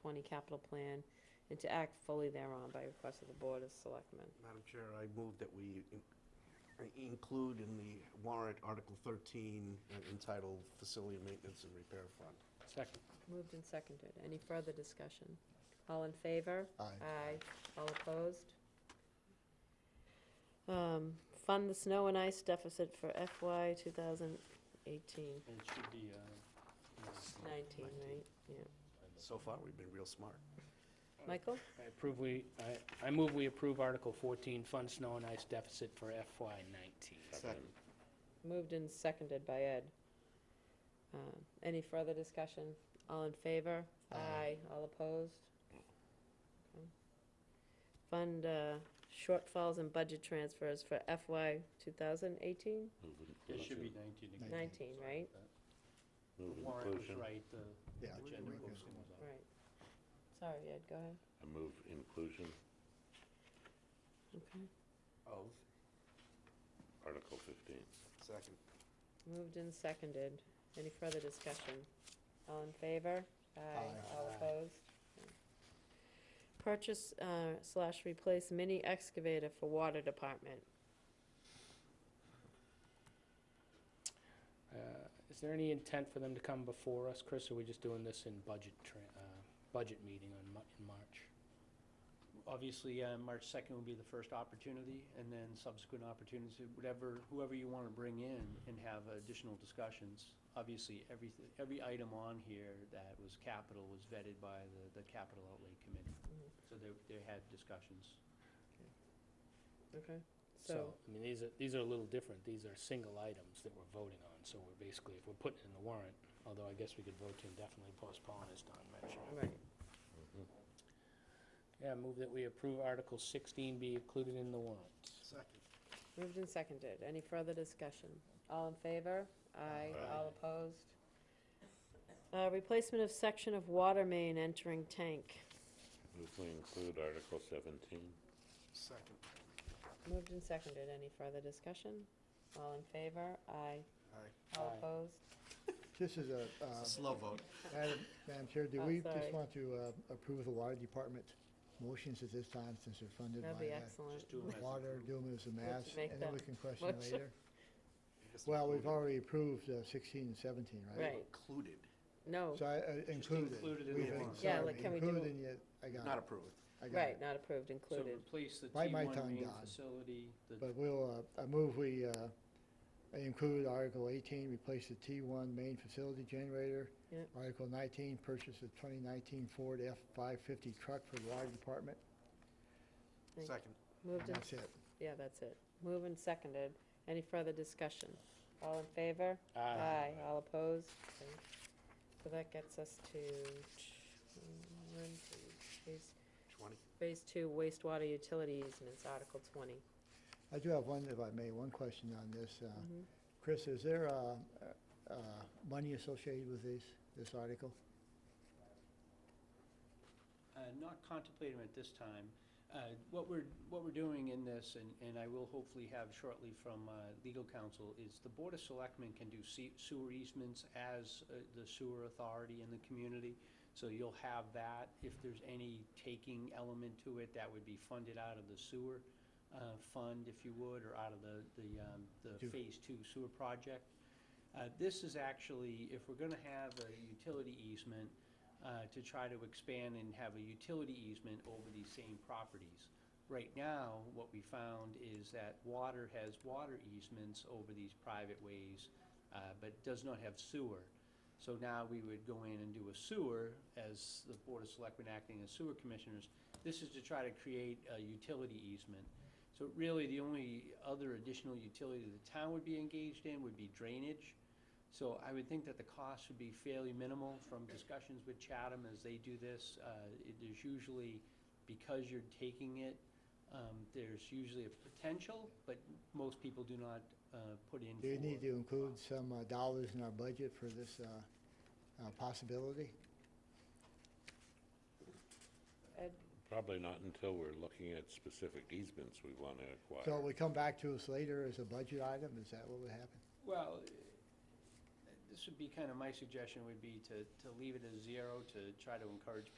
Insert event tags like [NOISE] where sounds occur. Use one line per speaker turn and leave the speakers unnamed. twenty capital plan, and to act fully thereon by request of the Board of Selectmen.
Madam Chair, I move that we in- I include in the warrant Article 13 uh, entitled Facility Maintenance and Repair Fund.
Second.
Moved and seconded. Any further discussion? All in favor?
Aye.
All opposed? Um, Fund the snow and ice deficit for FY 2018,
It should be, uh,
19, right? Yeah.
So far, we've been real smart.
Michael?
I approve we, I, I move we approve Article 14, Fund Snow and Ice Deficit for FY '19.
Second.
Moved and seconded by Ed. Uh, Any further discussion? All in favor?
Aye.
All opposed? Okay. Fund uh, shortfalls and budget transfers for FY 2018?
It should be 19 again.
19, right?
The warrant was right, the
Yeah.
agenda posting was off.
Right. Sorry, Ed, go ahead.
I move inclusion,
Okay.
Of,
Article 15.
second.
Moved and seconded. Any further discussion? All in favor? All
Aye.
opposed? Okay. Purchase uh, slash replace mini excavator for water department.
Uh, Is there any intent for them to come before us, Chris, or are we just doing this in budget, tran- uh, budget meeting on, Mar- in March?
Obviously, uh, March 2nd would be the first opportunity, and then subsequent opportunities, whatever, whoever you want to bring in and have additional discussions. Obviously, every, every item on here that was capital was vetted by the, the capital outlay committee.
Mhm.
So they, they had discussions.
Okay.
So,
So,
I mean, these are, these are a little different. These are single items that we're voting on, so we're basically, if we're putting in the warrant, although I guess we could vote to indefinitely postpone, as Don mentioned.
right.
Yeah, move that we approve Article 16 be included in the warrant.
Second.
Moved and seconded. Any further discussion? All in favor? Aye.
Aye.
All opposed? Uh, Replacement of section of water main entering tank.
Move we include Article 17.
Second.
Moved and seconded. Any further discussion? All in favor? Aye.
Aye.
All
Aye.
opposed?
This is a,
[LAUGHS]
uh,
Slow vote.
Madam Madam Chair, do
Oh,
we
sorry.
just want to uh, approve the water department motions at this time since they're funded
That'd be
by
excellent.
Just do
uh,
them as
water, do them as a mass,
make
and then we
that
can question
motion.
later? Well, we've already approved uh, 16 and 17, right?
Right.
Included,
No,
So I I included.
included in
We've
the
in-
warrant.
Yeah,
sorry,
like, can we
Included
do-
in yet, I got
not
it,
approved.
I got
right,
it.
not approved,
So
included.
replace the
Bite my
T1
tongue,
main
Don.
facility, the
But we'll, uh, I move we uh, include Article 18, replace the T1 main facility generator.
Yep.
Article 19, purchase a 2019 Ford F-550 truck for the water department.
Thank-
Second.
Moved and,
And that's it.
yeah, that's it. Moved and seconded. Any further discussion? All in favor? All opposed? Okay. So that gets us to t- one, two, phase,
20.
phase two wastewater utility easements, Article twenty.
I do have one, if I may, one question on this. uh,
Mhm.
Chris, is there uh, uh, uh, money associated with this, this article?
Uh, Not contemplating at this time. Uh, What we're, what we're doing in this, and, and I will hopefully have shortly from uh, legal counsel, is the Board of Selectmen can do se- sewer easements as uh, the sewer authority in the community. So you'll have that. If there's any taking element to it, that would be funded out of the sewer uh, fund, if you would, or out of the, the, um, the
Do-
Phase Two sewer project. Uh, This is actually, if we're gonna have a utility easement, uh, to try to expand and have a utility easement over these same properties. Right now, what we found is that water has water easements over these private ways, uh, but does not have sewer. So now we would go in and do a sewer as the Board of Selectmen acting as sewer commissioners. This is to try to create a utility easement. So really, the only other additional utility the town would be engaged in would be drainage. So I would think that the cost would be fairly minimal from discussions with Chatham as they do this. Uh, it is usually, because you're taking it, um, there's usually a potential, but most people do not, uh, put in
Do you need
for-
to include some uh, dollars in our budget for this uh, uh, possibility?
Ed,
Probably not until we're looking at specific easements we want to
So
acquire.
it would come back to us later as a budget item, is that what would happen?
Well, this would be kind of, my suggestion would be to, to leave it as zero, to try to encourage people